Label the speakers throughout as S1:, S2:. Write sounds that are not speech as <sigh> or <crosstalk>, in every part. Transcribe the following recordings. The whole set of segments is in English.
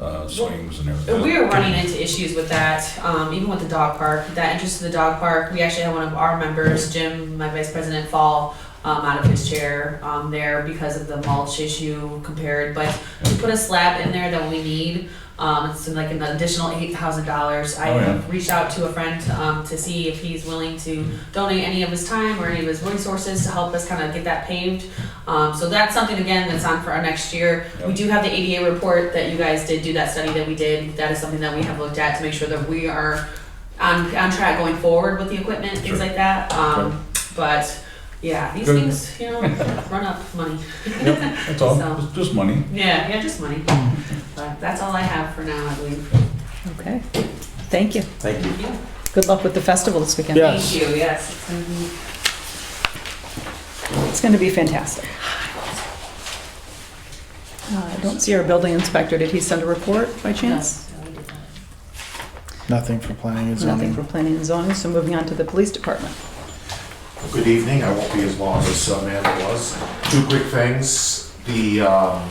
S1: uh, swings and
S2: And
S1: everything.
S2: We were running into issues with that, um, even with the dog park, that interest to the dog park. We actually had one of our members, Jim, my vice president, fall um, out of his chair um, there because of the mulch issue compared. But we put a slab in there that we need. Um, it's like an additional eight thousand dollars. I
S1: Oh, yeah.
S2: reached out to a friend um, to see if he's willing to donate any of his time or any of his resources to help us kind of get that paved. Um, so that's something again that's on for our next year. We do have the ADA report that you guys did do that study that we did. That is something that we have looked at to make sure that we are on, on track going forward with the equipment, things
S1: Sure.
S2: like that. Um, but yeah, these
S1: Good. <laughs>
S2: things, you know, run up money.
S1: Yep, that's all,
S2: So-
S1: It's just money.
S2: Yeah, yeah, just money. But that's all I have for now, I believe.
S3: Okay, thank you.
S4: Thank you.
S3: Good luck with the festival this weekend.
S5: Yeah.
S2: Thank you, yes. it's gonna be-
S3: It's going to be fantastic. Uh, I don't see our building inspector. Did he send a report by chance?
S2: No, no, we did not.
S5: Nothing for planning and
S3: Nothing for
S5: zoning.
S3: planning and zoning, so moving on to the police department.
S6: Good evening, I won't be as long as uh, Amanda was. Two quick things, the um,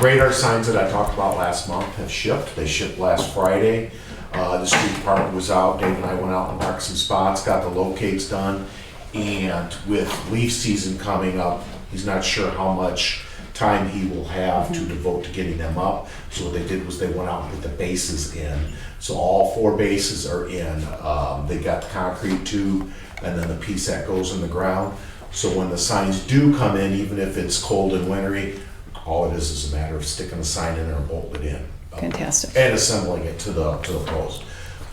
S6: radar signs that I talked about last month have shipped, they shipped last Friday. Uh, The street department was out, Dave and I went out and marked some spots, got the locates done, and with leaf season coming up, he's not sure how much time he will have to devote to getting them up. So what they did was they went out and put the bases in. So all four bases are in. Um, they got the concrete tube and then the piece that goes in the ground. So when the signs do come in, even if it's cold and wintry, all it is is a matter of sticking the sign in there and bolting it in.
S3: Fantastic.
S6: And assembling it to the, to the post.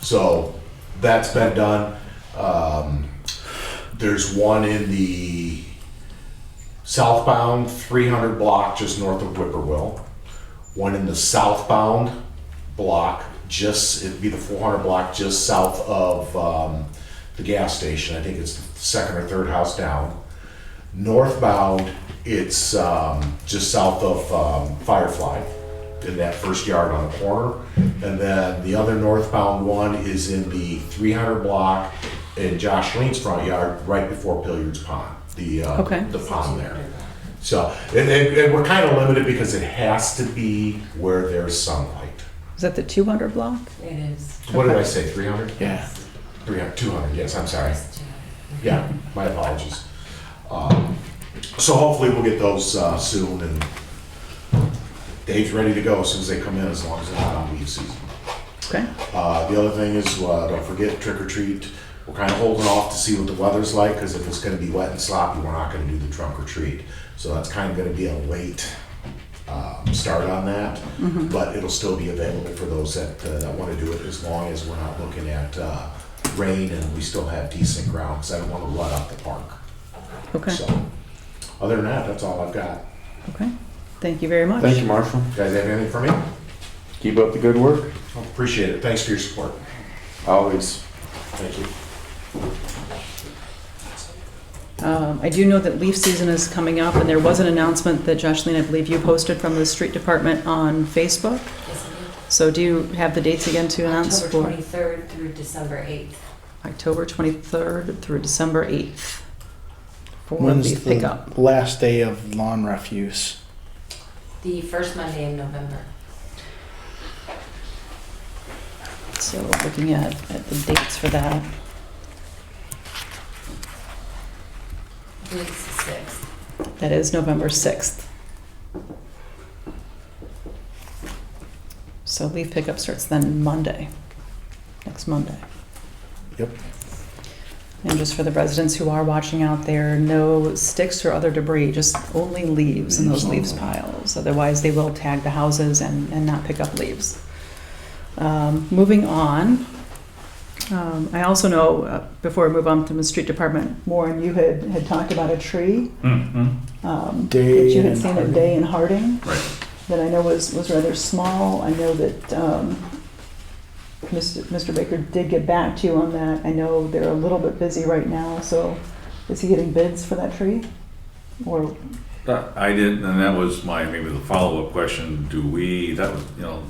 S6: So that's been done. Um, there's one in the southbound 300 block just north of Whippoorwill. One in the southbound block, just, it'd be the 400 block just south of um, the gas station. I think it's the second or third house down. Northbound, it's um, just south of um, Firefly in that first yard on the corner. And then the other northbound one is in the 300 block in Josh Lean's front yard, right before Pilliard's Pond, the, uh,
S3: Okay.
S6: the pond there. So, and, and, and we're kind of limited because it has to be where there's sunlight.
S3: Is that the 200 block?
S7: It is.
S6: What did I say, 300?
S5: Yeah.
S6: 300, 200, yes, I'm sorry. Yeah, my apologies. Um, So hopefully we'll get those uh, soon and Dave's ready to go as soon as they come in, as long as it's not on leaf season.
S3: Okay,
S6: Uh, the other thing is, uh, don't forget trick or treat. We're kind of holding off to see what the weather's like because if it's going to be wet and sloppy, we're not going to do the trunk or treat. So that's kind of going to be a late um, start on that, but it'll still be available for those that, uh, that want to do it as long as we're not looking at uh, rain and we still have decent ground because I don't want to rut out the park.
S3: okay,
S6: So, other than that, that's all I've got.
S3: okay. Thank you very much.
S4: Thank you, Marshall.
S6: You guys have anything for me?
S4: Keep up the good work.
S6: Appreciate it. Thanks for your support.
S4: Always.
S6: Thank you.
S3: Um, I do know that leaf season is coming up, and there was an announcement that Jocelyn, I believe you posted from the street department on Facebook.
S7: Yes, it
S3: So do you have the dates again to
S7: is.
S3: announce?
S7: October
S3: for
S7: 23rd through December 8th.
S3: October 23rd through December 8th for the
S5: When's the
S3: pickup.
S5: last day of lawn refuse?
S7: The first Monday in November.
S3: So looking at, at the dates for that.
S7: I believe it's the 6th.
S3: That is November 6th. So leaf pickup starts then Monday, next Monday.
S5: Yep.
S3: And just for the residents who are watching out there, no sticks or other debris, just only leaves in those leaves
S5: Leaves
S3: piles. Otherwise, they will tag the houses and, and not pick up leaves. Um, Moving on, um, I also know, uh, before we move on to the street department, Warren, you had, had talked about a tree
S1: Mm-hmm.
S3: um,
S5: Day
S3: that you had
S5: in
S3: seen at
S5: Harding.
S3: Day in Harding.
S1: Right.
S3: That I know was, was rather small. I know that um, Mr. Mr. Baker did get back to you on that. I know they're a little bit busy right now, so is he getting bids for that tree? Or,
S1: That- I didn't, and that was my, maybe the follow-up question, do we, that was, you know,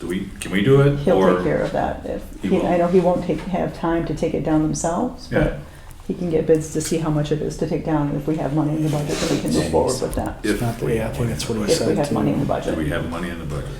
S1: do we, can we do it?
S3: he'll
S1: Or-
S3: take care of that. If,
S1: He
S3: he- I
S1: will.
S3: know he won't take, have time to take it down themselves,
S1: Yeah.
S3: but he can get bids to see how much it is to take down. and If we have money in the budget, then we can move forward with that.
S1: If
S5: Not the-
S1: we
S5: yeah, I think that's what he
S3: If we
S5: said
S3: have money in
S5: too.
S3: the
S1: Do we
S3: budget.
S1: have money in the budget?